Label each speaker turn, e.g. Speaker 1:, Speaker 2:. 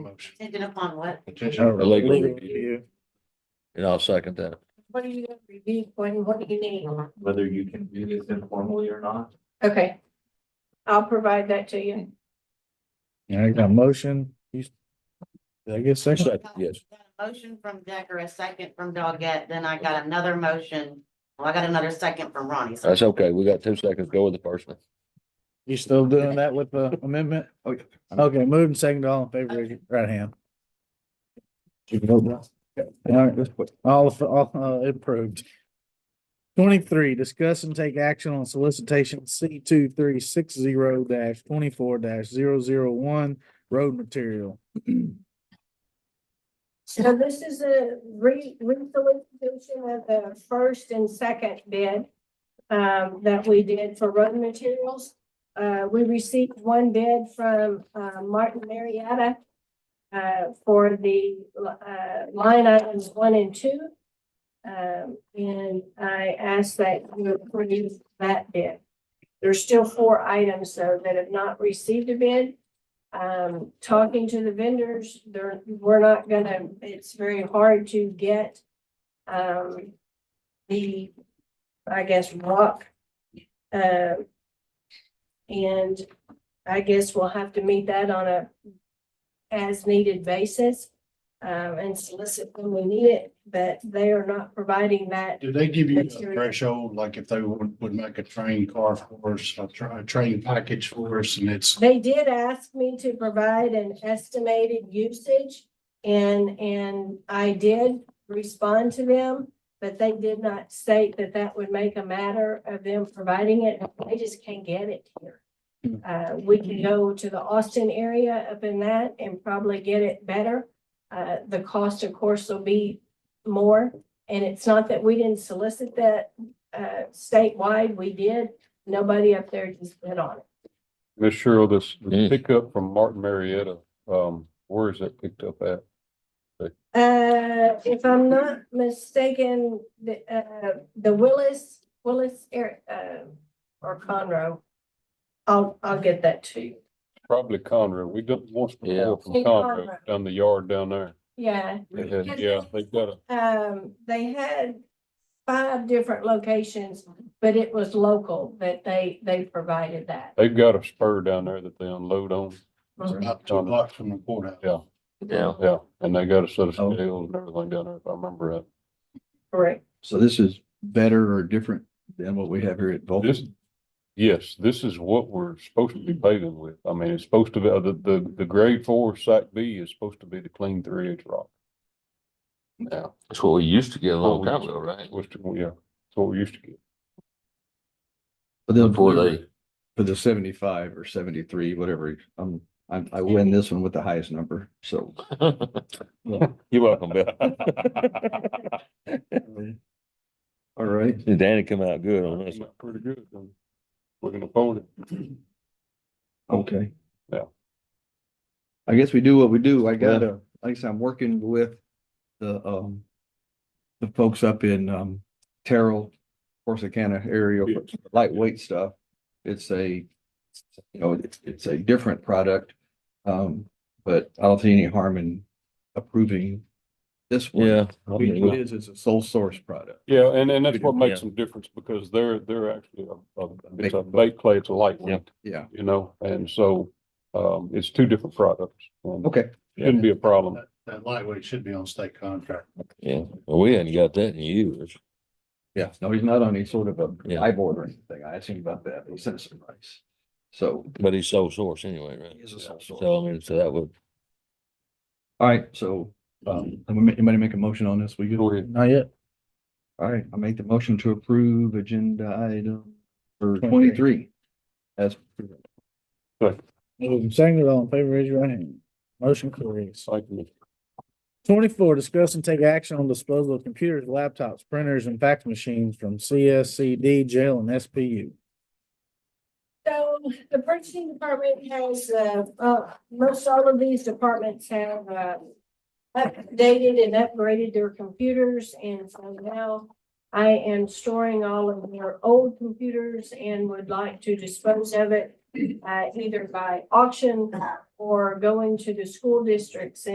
Speaker 1: motion.
Speaker 2: Taken upon what?
Speaker 1: Contingent.
Speaker 3: A legal
Speaker 4: Legal
Speaker 3: review,
Speaker 4: review.
Speaker 3: and I'll second that.
Speaker 2: What are you gonna review, what, what do you need?
Speaker 1: Whether you can do this informally or not.
Speaker 5: Okay. I'll provide that to you.
Speaker 4: I got a motion. You- Did I get a second?
Speaker 3: Second, Yes,
Speaker 2: Got a Motion from Decker, a second from Doggett, then I got another motion, well, I got another second from Ronnie. so-
Speaker 3: that's okay. We got two seconds. Go with the first one.
Speaker 4: You still doing that with the amendment?
Speaker 1: Okay.
Speaker 4: Okay, moving second all in favor, raise your right hand. Keep it open. All right, let's put- all, all, uh, approved. Twenty-three, discuss and take action on solicitation C two three six zero dash twenty-four dash zero zero one road material.
Speaker 5: So this is a re, re-solicitation of the first and second bid um, that we did for road materials. Uh, we received one bid from, uh, Martin Marietta uh, for the, uh, line items one and two. Um, and I ask that you approve that bid. There's still four items though that have not received a bid. um, talking to the vendors, they're, we're not gonna, it's very hard to get, um, the, I guess, rock. Uh, and I guess we'll have to meet that on a as-needed basis, um, and solicit when we need it, but they are not providing that.
Speaker 1: Do they give you a
Speaker 5: Material.
Speaker 1: threshold, like if they would, would make a train car for us, a tra- a train package for us and it's
Speaker 5: They did ask me to provide an estimated usage and, and I did respond to them. But they did not state that that would make a matter of them providing it. They just can't get it here. Uh, we can go to the Austin area up in that and probably get it better. Uh, the cost, of course, will be more. And it's not that we didn't solicit that, uh, statewide. We did. Nobody up there just bid on it.
Speaker 6: Miss Cheryl, this the
Speaker 3: Mm.
Speaker 6: pickup from Martin Marietta, um, where is that picked up at?
Speaker 5: Uh, if I'm not mistaken, the, uh, the Willis, Willis, air- uh, or Conroe. I'll, I'll get that to you.
Speaker 6: Probably Conroe. We got once
Speaker 3: Yeah.
Speaker 6: before from
Speaker 5: Hey,
Speaker 6: Conroe,
Speaker 5: Conroe.
Speaker 6: down the yard down there.
Speaker 5: Yeah,
Speaker 6: They
Speaker 3: Really?
Speaker 6: had- Yeah, they've got a,
Speaker 5: um, they had five different locations, but it was local that they, they provided that.
Speaker 6: they've got a spur down there that they unload on.
Speaker 5: Uh-huh.
Speaker 1: up to a block from the courthouse.
Speaker 6: Yeah.
Speaker 3: Yeah.
Speaker 6: Yeah, and they got a set of
Speaker 7: Oh.
Speaker 6: scales and everything down there, if I remember right.
Speaker 5: Correct.
Speaker 7: So this is better or different than what we have here at
Speaker 6: This,
Speaker 7: Vulcan?
Speaker 6: yes, this is what we're supposed to be paving with. I mean, it's supposed to be, uh, the, the, the grade four site B is supposed to be the clean three inch rock. Yeah,
Speaker 3: That's what we used to get a
Speaker 6: Oh,
Speaker 3: long time ago, right?
Speaker 6: it was, yeah, that's what we used to get.
Speaker 7: But then
Speaker 3: Before they,
Speaker 7: For the seventy-five or seventy-three, whatever, um, I, I win this one with the highest number, so.
Speaker 3: you're welcome, Bill.
Speaker 7: All right,
Speaker 3: Danny come out good on this.
Speaker 6: Not Pretty good. then. We're gonna fold it.
Speaker 7: okay.
Speaker 6: Yeah.
Speaker 7: I guess we do what we do. I gotta, like I said, I'm working with the, um, the folks up in, um, Terrell, Corsicana area,
Speaker 6: Yeah.
Speaker 7: lightweight stuff. It's a, you know, it's, it's a different product. Um, but I don't see any harm in approving this one.
Speaker 3: Yeah.
Speaker 7: It is, it's a sole source product.
Speaker 6: Yeah, and, and that's what
Speaker 3: Yeah.
Speaker 6: makes some difference because they're, they're actually a, a, it's a bait clay, it's a lightweight,
Speaker 7: Yeah,
Speaker 6: you know, and so, um, it's two different products. and
Speaker 7: okay.
Speaker 6: Shouldn't be a problem.
Speaker 1: That- That lightweight should be on state contract.
Speaker 3: Yeah, well, we hadn't got that in years.
Speaker 7: Yeah, no, he's not on any sort of a
Speaker 3: Yeah.
Speaker 7: high board or anything. I asked him about that. He sent us some rice. So
Speaker 3: But he's sole source anyway, right?
Speaker 7: he is a sole source. All
Speaker 3: So I mean, so that would,
Speaker 7: right, so um, anybody make a motion on this? Will you?
Speaker 6: Go ahead.
Speaker 4: Not yet.
Speaker 7: All right, I make the motion to approve agenda item for
Speaker 4: 23.
Speaker 7: twenty-three. As presented.
Speaker 4: Moving second all in favor, raise your right hand. Motion carries.
Speaker 6: Thank you.
Speaker 4: Twenty-four, discuss and take action on disposal of computers, laptops, printers, and fax machines from CSCD, jail, and SPU.
Speaker 5: So the purchasing department has, uh, uh, most all of these departments have, uh, updated and upgraded their computers and so now I am storing all of their old computers and would like to dispose of it uh, either by auction or going to the school districts